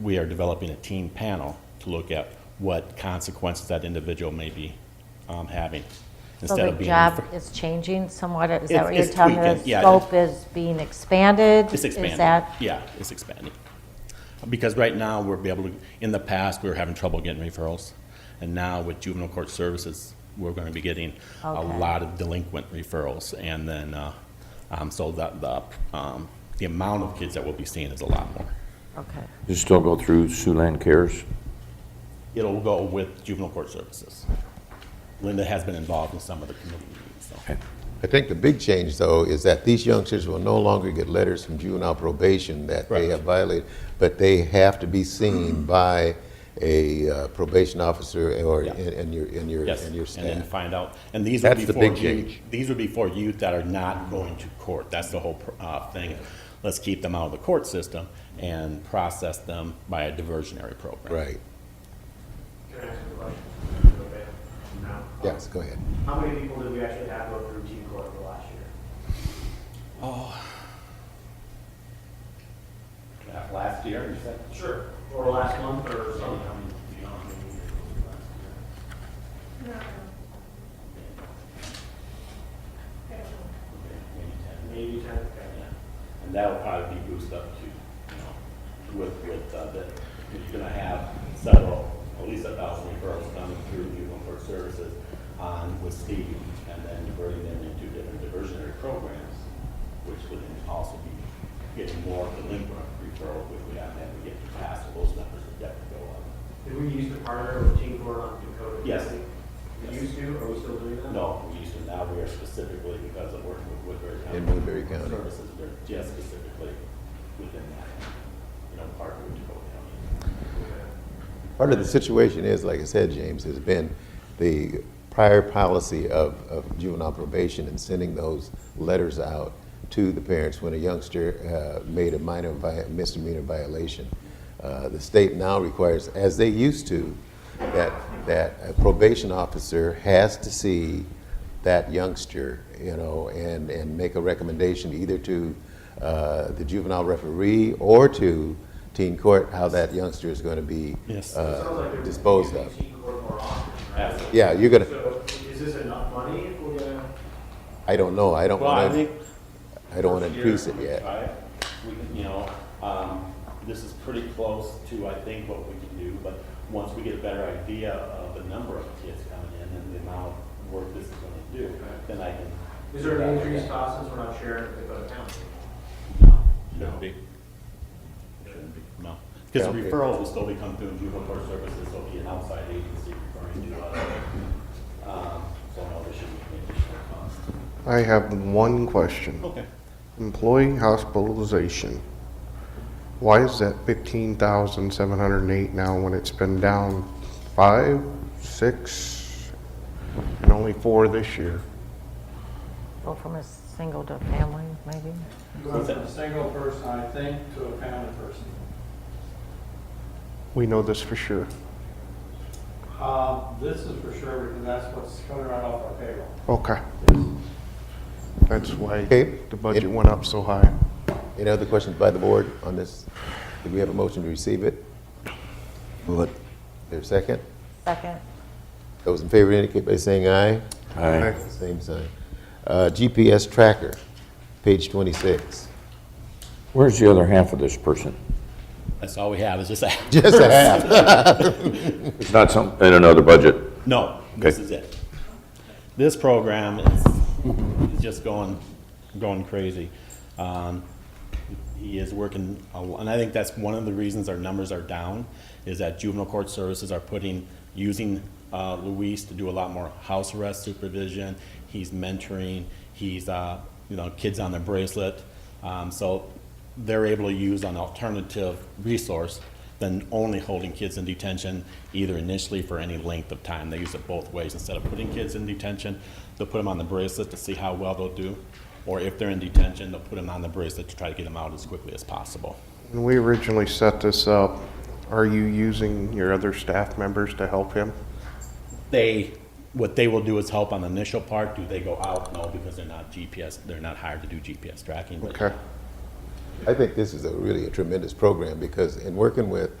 we are developing a team panel to look at what consequences that individual may be um, having. So instead the of being job refer- is changing somewhat, is It's- that what you're it's telling me? tweaking, The yeah, scope is being expanded? It's Is expanding. that, Yeah, it's expanding. Because right now, we're be able to, in the past, we were having trouble getting referrals. And now with juvenile court services, we're going to be getting a Okay. lot of delinquent referrals. And then, uh, um, so that the, um, the amount of kids that we'll be seeing is a lot more. okay, Does it still go through Siouxland Cares? It'll go with juvenile court services. Linda has been involved in some of the committee meetings, so. I think the big change, though, is that these youngsters will no longer get letters from juvenile probation that they Correct. have violated, but they have to be Mm-hmm. seen by a uh, probation officer or Yeah. and, and your and your Yes, and your And then staff. find out, and these would be That's the for big youth, change. these would be for youth that are not going to court, that's the whole, pr- uh, thing. Let's keep them out of the court system and process them by a diversionary program. right. Can I ask a question? Okay. Now. Yes. Go ahead. How many people did we actually have go through Team Court for last year? Oh. Uh, Last year, you said? Sure. Or last month or something, I mean, you know, maybe we did it last year. Maybe ten, okay, yeah. And that'll probably be boosted up to, you know, with, with, uh, that, you're gonna have several, at least a thousand referrals coming through juvenile court services on, with Steve, and then diverting them into different diversionary programs, which would then also be getting more delinquent referrals, which we haven't had to get to pass, so those numbers would definitely go up. Did we used to partner with Team Court on Dakota? Yes. County? We Yes. used to, are we still doing that? No, we used to, now we are specifically, because of working with Woodbury County. In Woodbury County. Services, they're just specifically within that, you know, part of Dakota County. Part of the situation is, like I said, James, has been the prior policy of, of juvenile probation and sending those letters out to the parents when a youngster uh, made a minor vi- misdemeanor violation. Uh, the state now requires, as they used to, that, that a probation officer has to see that youngster, you know, and, and make a recommendation either to uh, the juvenile referee or to teen court how that youngster is going to be Yes. uh, Sounds like they're disposed using of. Team Court more often, right? Absolutely. Yeah, you're going to, So is this enough money if we're gonna? I don't know, I don't Well, I want think. to, I don't want to first increase year, it yet. try it. We can, you know, um, this is pretty close to, I think, what we can do, but once we get a better idea of the number of kids coming in and the amount of work this is gonna do, then I can. Is there an increased cost since we're not sharing with Dakota County? Shouldn't be. Shouldn't be, no. Because the Yeah. referrals will still be come through juvenile court services, so it'll be an outside agency referring to us. Um, So no, there shouldn't be any additional cost. I have one question. Okay. Employee hospitalization. Why is that fifteen thousand seven hundred and eight now when it's been down five, six, and only four this year? go from a single to a family, maybe? You went from a single person, I think, to a family person. We know this for sure. Uh, This is for sure, because that's what's coming right off our payroll. Okay. That's why Okay. the budget went up so high. Any other questions by the board on this? Do we have a motion to receive it? Move it. There's a second? Second, Those in favor indicate by saying aye. Aye. Same sign. Uh, GPS tracker, page 26. Where's the other half of this person? That's all we have, is just that. Just a half. It's not some, in another budget? No, this Okay. is it. This program is is just going, going crazy. Um, He is working, a lo- and I think that's one of the reasons our numbers are down, is that juvenile court services are putting, using uh, Luis to do a lot more house arrest supervision. He's mentoring, he's, uh, you know, kids on the bracelet. Um, So they're able to use an alternative resource than only holding kids in detention, either initially for any length of time. They use it both ways. Instead of putting kids in detention, they'll put them on the bracelet to see how well they'll do. Or if they're in detention, they'll put them on the bracelet to try to get them out as quickly as possible. When we originally set this up, are you using your other staff members to help him? They, what they will do is help on the initial part. Do they go out? No, because they're not GPS, they're not hired to do GPS tracking. but Okay. I think this is a really a tremendous program because in working with